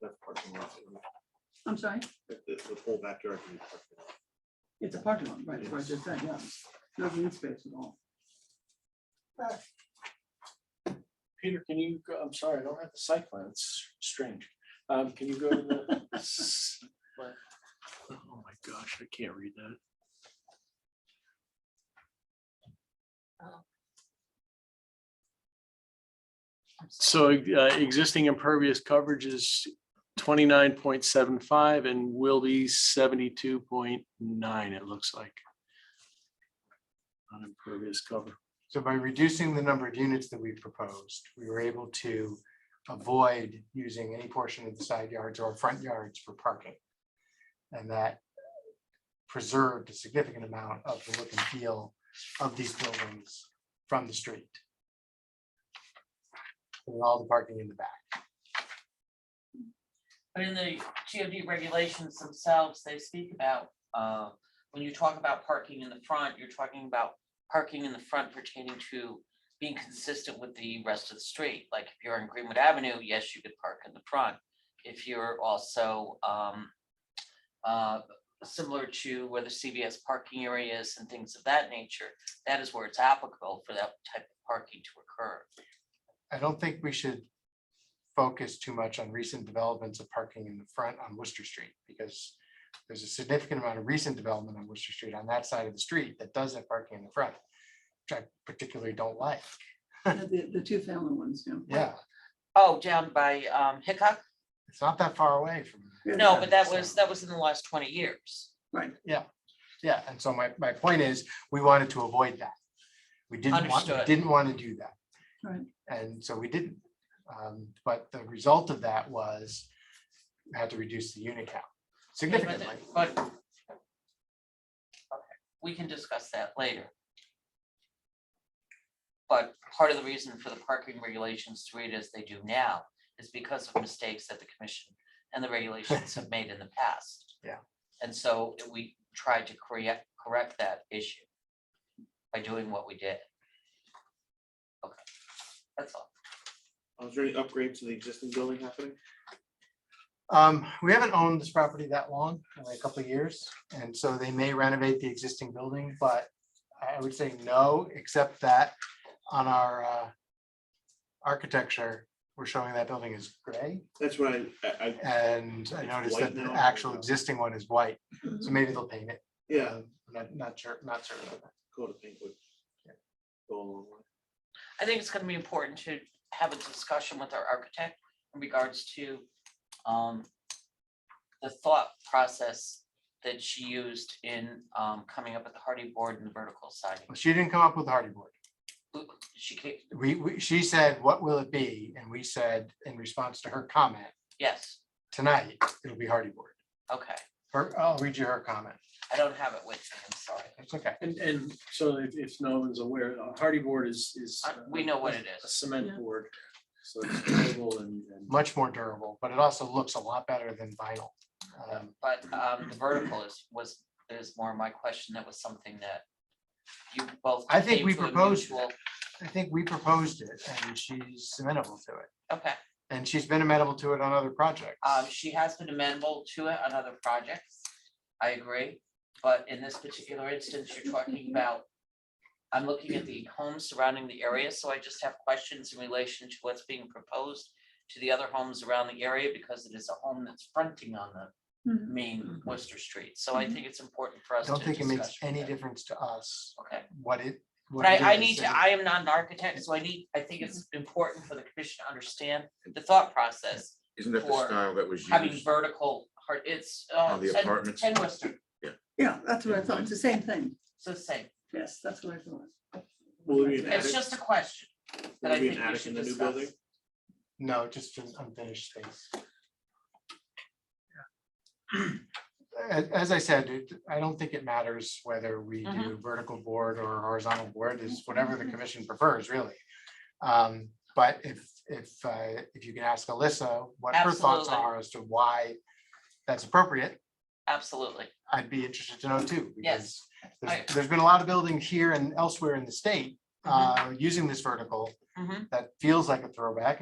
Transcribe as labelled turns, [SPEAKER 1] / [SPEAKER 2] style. [SPEAKER 1] That's parking lot.
[SPEAKER 2] I'm sorry,
[SPEAKER 1] The, the whole backyard. can be parking lot.
[SPEAKER 2] it's a parking lot, right, that's what I just said, yeah. No green space at all.
[SPEAKER 3] Peter, can you, go? I'm sorry, I don't have the site plan, it's strange. Um, can you go to the? s- plan? Oh my gosh, I can't read that. So uh, existing impervious coverage is twenty-nine point seven five and will be seventy-two point nine, it looks like. On impervious cover.
[SPEAKER 4] So by reducing the number of units that we proposed, we were able to avoid using any portion of the side yards or front yards for parking. And that preserved a significant amount of the look and feel of these buildings from the street. And all the parking in the back.
[SPEAKER 5] But in the GOD regulations themselves, they speak about, uh, when you talk about parking in the front, you're talking about parking in the front pertaining to being consistent with the rest of the street. Like if you're on Greenwood Avenue, yes, you could park in the front. If you're also, um, uh, similar to where the CVS parking area is and things of that nature, that is where it's applicable for that type of parking to occur.
[SPEAKER 4] I don't think we should focus too much on recent developments of parking in the front on Worcester Street, because there's a significant amount of recent development on Worcester Street on that side of the street that does have parking in the front, which I particularly don't like.
[SPEAKER 2] The, the two family ones, yeah.
[SPEAKER 4] Yeah,
[SPEAKER 5] Oh, down by, um, Hickok?
[SPEAKER 4] it's not that far away from,
[SPEAKER 2] Yeah,
[SPEAKER 5] No,
[SPEAKER 2] yeah.
[SPEAKER 5] but that was, that was in the last twenty years.
[SPEAKER 2] Right,
[SPEAKER 4] yeah, and so my, my point is, we wanted to avoid that. We didn't want, we
[SPEAKER 5] Understood.
[SPEAKER 4] didn't want to do that.
[SPEAKER 2] Right.
[SPEAKER 4] And so we didn't. Um, But the result of that was we had to reduce the unit count
[SPEAKER 5] Yeah, but the-
[SPEAKER 4] significantly.
[SPEAKER 5] But. okay, We can discuss that later. But part of the reason for the parking regulations to read as they do now is because of mistakes that the commission and the regulations have made in the past.
[SPEAKER 4] Yeah.
[SPEAKER 5] And so we tried to correct, correct that issue by doing what we did. Okay, that's all.
[SPEAKER 1] Uh, Is there any upgrades to the existing building happening?
[SPEAKER 4] Um, we haven't owned this property that long, only a couple of years, and so they may renovate the existing building, but I I would say no, except that on our uh architecture, we're showing that building is gray,
[SPEAKER 1] That's what I, I, I-
[SPEAKER 4] and I
[SPEAKER 1] It's
[SPEAKER 4] noticed
[SPEAKER 1] white
[SPEAKER 4] that the
[SPEAKER 1] now.
[SPEAKER 4] actual existing one is white, so maybe they'll paint it.
[SPEAKER 1] yeah,
[SPEAKER 4] Um, Not, not sure, not certain of that.
[SPEAKER 1] coat of paint would go a long way.
[SPEAKER 5] I think it's gonna be important to have a discussion with our architect in regards to um. The thought process that she used in um coming up with the hardy board and the vertical siding.
[SPEAKER 4] Well, She didn't come up with the hardy board.
[SPEAKER 5] She came,
[SPEAKER 4] We, we, she said, what will it be? And we said, in response to her comment,
[SPEAKER 5] yes,
[SPEAKER 4] tonight, it'll be hardy board.
[SPEAKER 5] okay,
[SPEAKER 4] Her, I'll read you her comment.
[SPEAKER 5] I don't have it with me, I'm sorry.
[SPEAKER 4] It's okay.
[SPEAKER 3] And, and so if, if no one's aware, a hardy board is, is.
[SPEAKER 5] Uh, we know what it
[SPEAKER 3] A
[SPEAKER 5] is.
[SPEAKER 2] Yeah.
[SPEAKER 3] cement board. So it's durable and, and
[SPEAKER 4] much more durable, but it also looks a lot better than vinyl. Um,
[SPEAKER 5] But um the vertical is was is more my question, that was something that you both.
[SPEAKER 4] I think
[SPEAKER 5] came
[SPEAKER 4] we
[SPEAKER 5] to a
[SPEAKER 4] proposed
[SPEAKER 5] mutual-
[SPEAKER 4] I think we proposed it and she's amenable to it.
[SPEAKER 5] Okay,
[SPEAKER 4] And she's been amenable to it on other projects.
[SPEAKER 5] Um, she has been amenable to it on other projects. I agree, but in this particular instance, you're talking about. I'm looking at the homes surrounding the area, so I just have questions in relation to what's being proposed to the other homes around the area because it is a home that's fronting on the
[SPEAKER 2] Mhm.
[SPEAKER 5] main Worcester Street. So I think it's important for
[SPEAKER 4] I
[SPEAKER 5] us to
[SPEAKER 4] Mm-hmm. don't think it makes
[SPEAKER 5] discuss
[SPEAKER 4] any
[SPEAKER 5] that.
[SPEAKER 4] difference to us
[SPEAKER 5] Okay,
[SPEAKER 4] what it. what
[SPEAKER 5] but
[SPEAKER 4] it
[SPEAKER 5] I I
[SPEAKER 4] is.
[SPEAKER 5] need to, I am not an architect, so I need, I think it's important for the commission to understand the thought process
[SPEAKER 6] Isn't that
[SPEAKER 5] for
[SPEAKER 6] the style that was
[SPEAKER 5] having
[SPEAKER 6] used?
[SPEAKER 5] vertical, hard, it's, uh,
[SPEAKER 6] On the
[SPEAKER 5] ten-
[SPEAKER 6] apartments?
[SPEAKER 5] ten Worcester,
[SPEAKER 2] yeah, that's what I thought, it's the same thing,
[SPEAKER 5] so same.
[SPEAKER 2] yes, that's what I thought.
[SPEAKER 1] Will it be an
[SPEAKER 5] It's
[SPEAKER 1] attic?
[SPEAKER 5] just a question that
[SPEAKER 1] Will
[SPEAKER 5] I
[SPEAKER 1] it be an
[SPEAKER 5] think we
[SPEAKER 1] attic in
[SPEAKER 5] should
[SPEAKER 1] the new
[SPEAKER 5] discuss.
[SPEAKER 1] building?
[SPEAKER 4] No, just an unfinished space. As, as I said, it- I don't think it matters whether we do
[SPEAKER 5] Mm-hmm.
[SPEAKER 4] vertical board or horizontal board, is whatever the commission prefers, really. Um, But if, if, uh, if you can ask Alyssa what her thoughts
[SPEAKER 5] Absolutely.
[SPEAKER 4] are as to why that's appropriate,
[SPEAKER 5] Absolutely.
[SPEAKER 4] I'd be interested to know too.
[SPEAKER 5] Yes,
[SPEAKER 4] because There's,
[SPEAKER 5] I-
[SPEAKER 4] there's been a lot of buildings here and elsewhere in the state uh, using this vertical
[SPEAKER 5] Mhm. Mm-hmm.
[SPEAKER 4] that feels like a throwback